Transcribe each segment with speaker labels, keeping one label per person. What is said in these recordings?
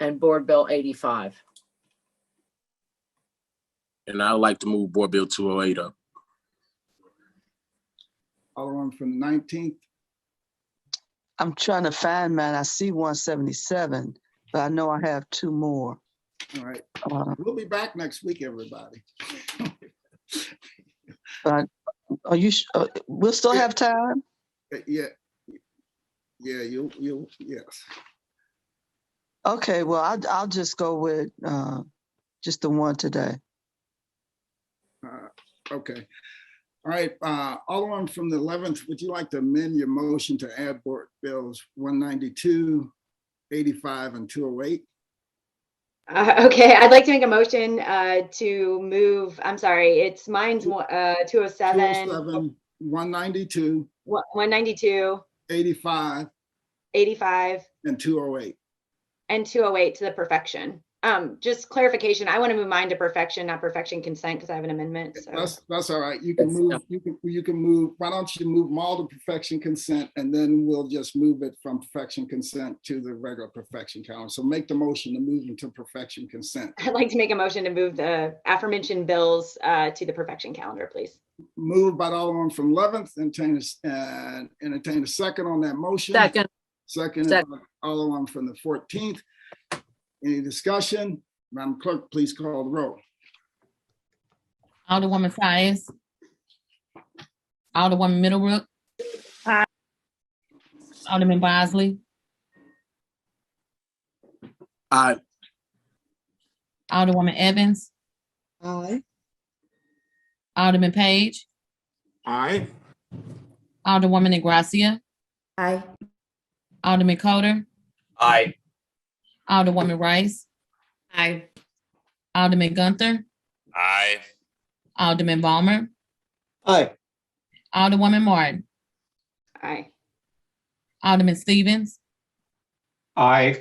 Speaker 1: and Board Bill 85.
Speaker 2: And I'd like to move Board Bill 208 up.
Speaker 3: Alderman from the 19th,
Speaker 4: I'm trying to find mine. I see one seventy-seven, but I know I have two more.
Speaker 3: all right.
Speaker 4: Uh,
Speaker 3: We'll be back next week, everybody.
Speaker 4: Are you, su- uh, we'll still have time?
Speaker 3: Uh, Yeah. Yeah, you, you, yes.
Speaker 4: Okay, well, I'll, I'll just go with, uh, just the one today.
Speaker 3: Uh, Okay. All right, uh, Alderman from the 11th, would you like to amend your motion to add Board Bills 192, 85, and 208?
Speaker 5: Uh, Okay, I'd like to make a motion uh, to move, I'm sorry, it's mine's one- uh, 207,
Speaker 3: 207, 192,
Speaker 5: one- 192,
Speaker 3: 85,
Speaker 5: 85,
Speaker 3: and 208.
Speaker 5: and 208 to the perfection. Um, Just clarification, I want to move mine to perfection, not perfection consent, because I have an amendment, so.
Speaker 3: That's, that's all right. You can
Speaker 2: That's-
Speaker 3: move, you can, you can move, why don't you move them all to perfection consent? And then we'll just move it from perfection consent to the regular perfection count. So make the motion to move them to perfection consent.
Speaker 5: I'd like to make a motion to move the aforementioned bills uh, to the perfection calendar, please.
Speaker 3: Moved by Alderman from 11th, entertain, a s- uh, entertain a second on that motion.
Speaker 1: Second,
Speaker 3: Second,
Speaker 1: Second.
Speaker 3: Alderman from the 14th. Any discussion? Madam Clerk, please call the roll.
Speaker 6: Alderwoman Tyus. Alderwoman Middlebrook. Alderman Bosley,
Speaker 2: Aye.
Speaker 6: Alderwoman Evans,
Speaker 7: Aye.
Speaker 6: Alderman Page,
Speaker 8: Aye.
Speaker 6: Alderwoman Negracia,
Speaker 7: Aye.
Speaker 6: Alderman Coder,
Speaker 8: Aye.
Speaker 6: Alderwoman Rice,
Speaker 7: Aye.
Speaker 6: Alderman Gunther,
Speaker 8: Aye.
Speaker 6: Alderman Ballmer,
Speaker 8: Aye.
Speaker 6: Alderwoman Martin,
Speaker 5: Aye.
Speaker 6: Alderman Stevens,
Speaker 8: Aye.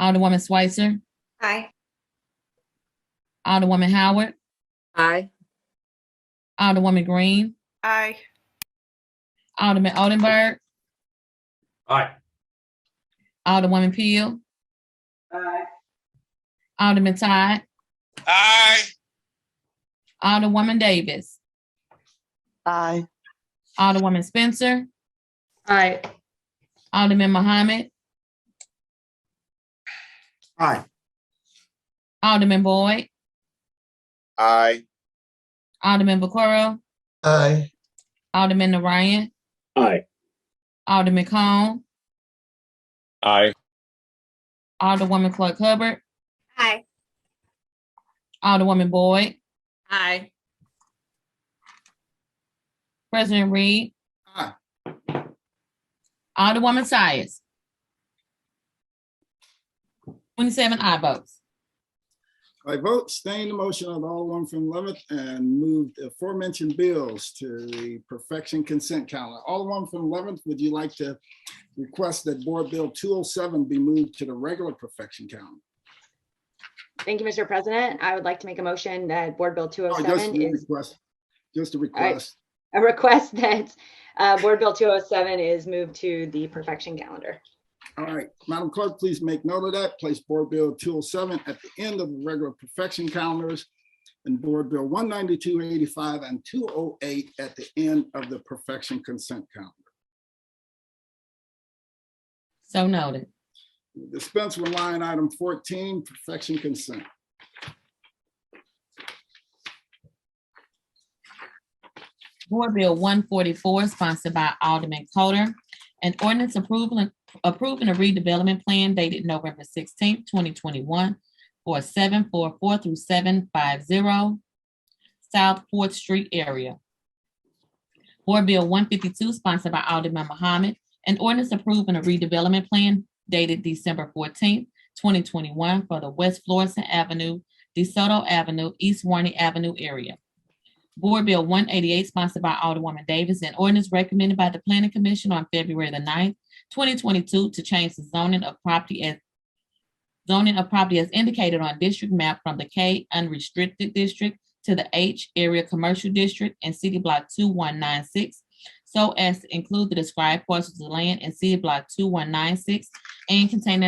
Speaker 6: Alderwoman Switzer,
Speaker 7: Aye.
Speaker 6: Alderwoman Howard,
Speaker 1: aye.
Speaker 6: Alderwoman Green,
Speaker 7: Aye.
Speaker 6: Alderman Odenberg,
Speaker 8: Aye.
Speaker 6: Alderwoman Peel, Alderman Todd,
Speaker 8: Aye.
Speaker 6: Alderwoman Davis,
Speaker 4: Aye,
Speaker 6: Alderwoman Spencer,
Speaker 5: Aye.
Speaker 6: Alderman Muhammad,
Speaker 8: Aye.
Speaker 6: Alderman Boyd,
Speaker 8: Aye.
Speaker 6: Alderman Vaccaro,
Speaker 8: Aye.
Speaker 6: Alderman Orion,
Speaker 2: Aye.
Speaker 6: Alderman Cone,
Speaker 8: Aye.
Speaker 6: Alderwoman Clark Hubbard,
Speaker 7: Aye.
Speaker 6: Alderwoman Boyd,
Speaker 7: Aye.
Speaker 6: President Reed,
Speaker 3: Aye.
Speaker 6: Alderwoman Tyus. Twenty-seven I votes.
Speaker 3: I vote staying the motion of Alderman from 11th and move the aforementioned bills to the perfection consent calendar. Alderman from 11th, would you like to request that Board Bill 207 be moved to the regular perfection calendar?
Speaker 5: Thank you, Mr. President. I would like to make a motion that Board Bill
Speaker 3: Oh, just
Speaker 5: 207
Speaker 3: a
Speaker 5: is
Speaker 3: request. Just a request.
Speaker 5: a request that uh, Board Bill 207 is moved to the perfection calendar.
Speaker 3: All right, Madam Clerk, please make note of that. Place Board Bill 207 at the end of the regular perfection calendars and Board Bill 192, 85, and 208 at the end of the perfection consent calendar.
Speaker 6: So noted.
Speaker 3: Dispense with line item 14, perfection consent.
Speaker 6: Board Bill one forty-four sponsored by Alderman Coder. An ordinance approval, approving a redevelopment plan dated November sixteenth, twenty twenty-one for seven four four through seven five zero South Fourth Street area. Board Bill one fifty-two sponsored by Alderman Muhammad. An ordinance approving a redevelopment plan dated December fourteenth, twenty twenty-one for the West Florissant Avenue, DeSoto Avenue, East Warney Avenue area. Board Bill one eighty-eight sponsored by Alderwoman Davis and ordinance recommended by the Planning Commission on February the 9th, twenty twenty-two to change the zoning of property as zoning of property as indicated on district map from the K unrestricted district to the H area commercial district and city block two one nine six so as to include the described parcels of land in city block two one nine six and contain